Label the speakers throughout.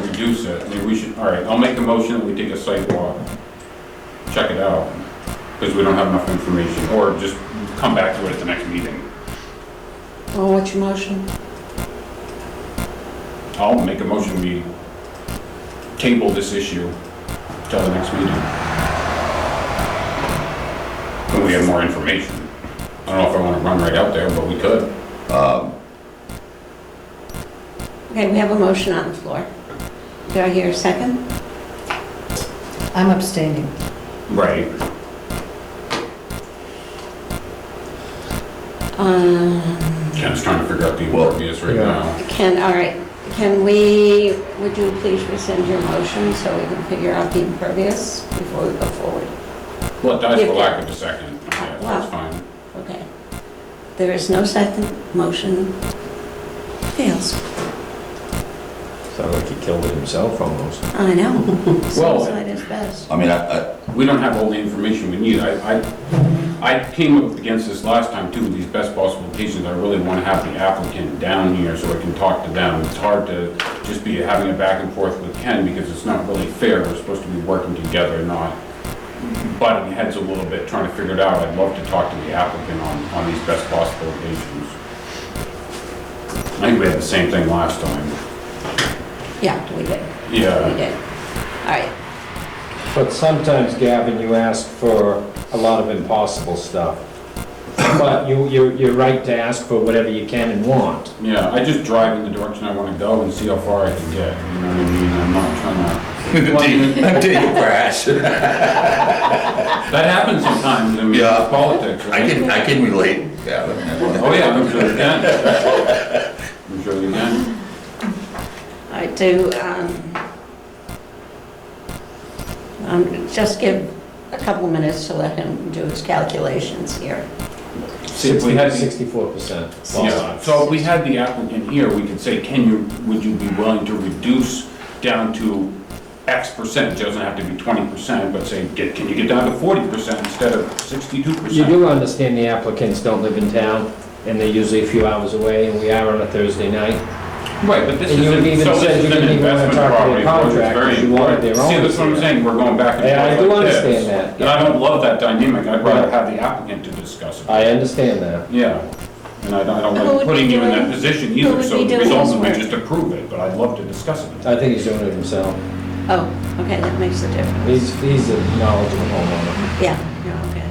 Speaker 1: reduce it, I mean, we should, all right, I'll make a motion that we take a site walk, check it out, because we don't have enough information, or just come back to it at the next meeting.
Speaker 2: Well, what's your motion?
Speaker 1: I'll make a motion, we table this issue till the next meeting. When we have more information. I don't know if I wanna run right out there, but we could.
Speaker 2: Okay, we have a motion on the floor. Do I hear a second?
Speaker 3: I'm abstaining.
Speaker 1: Right.
Speaker 2: Um,
Speaker 1: Ken's trying to figure out the impervious right
Speaker 4: Yeah.
Speaker 1: now.
Speaker 2: Can, all right, can we, would you please rescind your motion so we can figure out the impervious before we go forward?
Speaker 1: Well, it dies for
Speaker 2: Yeah.
Speaker 1: lack of a second. Yeah,
Speaker 2: Wow.
Speaker 1: that's fine.
Speaker 2: Okay. There is no second motion. Fails.
Speaker 4: Sounded like he killed it himself almost.
Speaker 2: I know.
Speaker 1: Well-
Speaker 2: Suicide is best.
Speaker 5: I mean, I, I,
Speaker 1: We don't have all the information we need. I, I, I came up against this last time too, with these best possible cases. I really want to have the applicant down here so I can talk to them. It's hard to just be having a back and forth with Ken because it's not really fair. We're supposed to be working together, not butting heads a little bit, trying to figure it out. I'd love to talk to the applicant on, on these best possible cases. I think we had the same thing last time.
Speaker 2: Yeah, we did. We
Speaker 1: Yeah,
Speaker 2: did. All right,
Speaker 4: But sometimes, Gavin, you ask for a lot of impossible stuff. But you, you're, you're right to ask for whatever you can and want.
Speaker 1: yeah. I just drive in the direction I want to go and see how far I can get. You know what I mean? I'm not trying to
Speaker 5: until you crash.
Speaker 1: That happens sometimes in
Speaker 5: Yeah.
Speaker 1: politics,
Speaker 5: I
Speaker 1: right?
Speaker 5: can, I can relate, Gavin.
Speaker 1: Oh, yeah, I'm sure you can. I'm sure you can.
Speaker 2: all right, do, um, um, just give a couple minutes to let him do his calculations here.
Speaker 1: See, if we had,
Speaker 4: Sixty-four percent
Speaker 1: yeah, so if we had the applicant here, we could say, can you, would you be willing to reduce down to X percent? It doesn't have to be twenty percent, but say, get, can you get down to forty percent instead of sixty-two
Speaker 4: You
Speaker 1: percent?
Speaker 4: do understand the applicants don't live in town, and they're usually a few hours away, and we are on a Thursday night.
Speaker 1: Right, but this is,
Speaker 4: And you
Speaker 1: so
Speaker 4: even
Speaker 1: this
Speaker 4: said
Speaker 1: is
Speaker 4: you
Speaker 1: an
Speaker 4: didn't even wanna
Speaker 1: investment
Speaker 4: talk to
Speaker 1: property,
Speaker 4: the
Speaker 1: which is
Speaker 4: contractors,
Speaker 1: very
Speaker 4: you wanted
Speaker 1: important.
Speaker 4: their
Speaker 1: See,
Speaker 4: own
Speaker 1: that's what I'm
Speaker 4: here.
Speaker 1: saying, we're going back
Speaker 4: Yeah, I
Speaker 1: and
Speaker 4: do
Speaker 1: forth like
Speaker 4: understand
Speaker 1: this.
Speaker 4: that,
Speaker 1: And I don't love that dynamic, I'd rather have the applicant to discuss it.
Speaker 4: I understand that.
Speaker 1: Yeah, and I don't, I
Speaker 2: Who
Speaker 1: don't
Speaker 2: would
Speaker 1: like
Speaker 2: be
Speaker 1: putting you in that
Speaker 2: doing-
Speaker 1: position
Speaker 2: who
Speaker 1: either,
Speaker 2: would
Speaker 1: so
Speaker 2: be
Speaker 1: the
Speaker 2: doing
Speaker 1: results
Speaker 2: this
Speaker 1: may
Speaker 2: work?
Speaker 1: just approve it, but I'd love to discuss it.
Speaker 4: I think he's doing it himself.
Speaker 2: Oh, okay, that makes a difference.
Speaker 4: He's, he's a knowledgeable homeowner.
Speaker 2: Yeah, yeah, okay.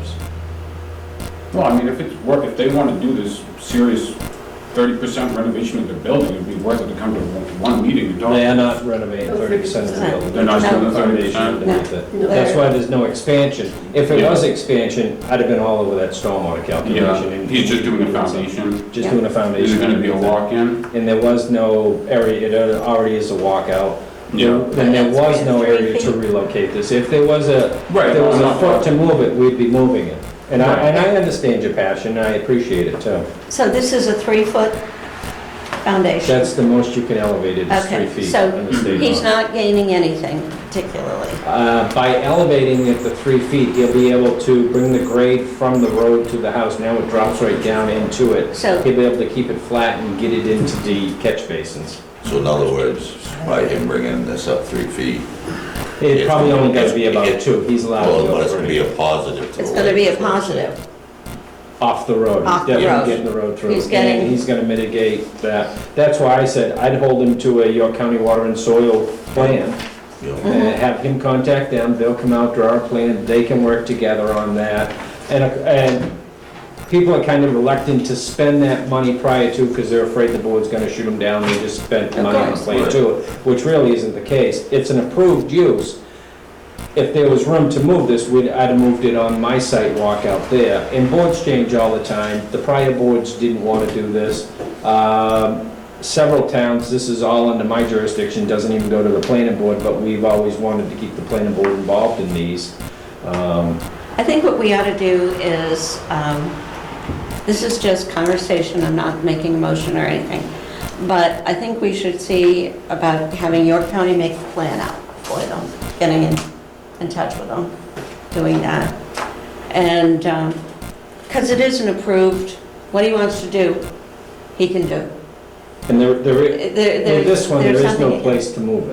Speaker 4: Oops.
Speaker 1: Well, I mean, if it's work, if they wanna do this serious thirty percent renovation of their building, it'd be worth it to come to one one meeting and talk.
Speaker 4: They are not renovating thirty percent of the building.
Speaker 1: They're not
Speaker 4: There's
Speaker 1: doing
Speaker 4: no
Speaker 1: the
Speaker 4: foundation
Speaker 1: 30%.
Speaker 4: underneath it.
Speaker 2: No.
Speaker 4: That's why there's no expansion. If it
Speaker 1: Yeah.
Speaker 4: was expansion, I'd have been all over that stormwater calculation.
Speaker 1: Yeah,
Speaker 4: and-
Speaker 1: he's just doing a foundation.
Speaker 4: Just doing a foundation.
Speaker 1: Is it gonna be a
Speaker 4: underneath it.
Speaker 1: walk-in?
Speaker 4: And there was no area, it already is a walkout.
Speaker 1: Yeah.
Speaker 4: And there was no area to relocate this. If there was a, if
Speaker 1: Right,
Speaker 4: there was
Speaker 1: no, no.
Speaker 4: a foot to move it, we'd be moving it. And I,
Speaker 1: Right.
Speaker 4: and I understand your passion, I appreciate it too.
Speaker 2: So this is a three-foot foundation?
Speaker 4: That's the most you can elevate it, is three feet. in the
Speaker 2: Okay, so
Speaker 4: state
Speaker 2: he's
Speaker 4: law.
Speaker 2: not gaining anything particularly.
Speaker 4: Uh, By elevating it to three feet, he'll be able to bring the grade from the road to the house. Now it drops right down into it.
Speaker 2: So-
Speaker 4: He'll be able to keep it flat and get it into the catch basins.
Speaker 5: So in other words, by him bringing this up three feet,
Speaker 4: It
Speaker 5: It's
Speaker 4: probably
Speaker 5: gonna-
Speaker 4: only gotta be
Speaker 5: it's-
Speaker 4: about
Speaker 5: it's-
Speaker 4: two. He's allowed
Speaker 5: well,
Speaker 4: to
Speaker 5: but
Speaker 4: go
Speaker 5: it's gonna be
Speaker 4: three.
Speaker 5: a positive.
Speaker 2: It's going to be a positive.
Speaker 4: Off the road.
Speaker 2: Off the
Speaker 4: He's
Speaker 2: road.
Speaker 4: definitely getting the road through.
Speaker 2: He's getting-
Speaker 4: And he's gonna mitigate that. That's why I said I'd hold him to a York County Water and Soil plan.
Speaker 2: Mm-hmm.
Speaker 5: positive.
Speaker 4: Uh, have him contact them, they'll come out, draw a plan, they can work together on that. And, uh, and people are kind of reluctant to spend that money prior to, because they're afraid the board's gonna shoot them down, they just spent
Speaker 2: Of
Speaker 4: money on
Speaker 2: course.
Speaker 4: plan two, which really isn't the case. It's an approved use. If there was room to move this, we'd, I'd have moved it on my site walk out there. And boards change all the time, the prior boards didn't wanna do this. Um, several towns, this is all under my jurisdiction, doesn't even go to the planning board, but we've always wanted to keep the planning board involved in these. Um,
Speaker 2: I think what we ought to do is, um, this is just conversation, I'm not making a motion or anything, but I think we should see about having York County make a plan out for them, getting in, in touch with them, doing that. And, um 'cause because it isn't approved, what he wants to do, he can do.
Speaker 4: And there, there, i-
Speaker 2: There- there-
Speaker 4: with this one, there
Speaker 2: there's
Speaker 4: is no
Speaker 2: something-
Speaker 4: place to move it.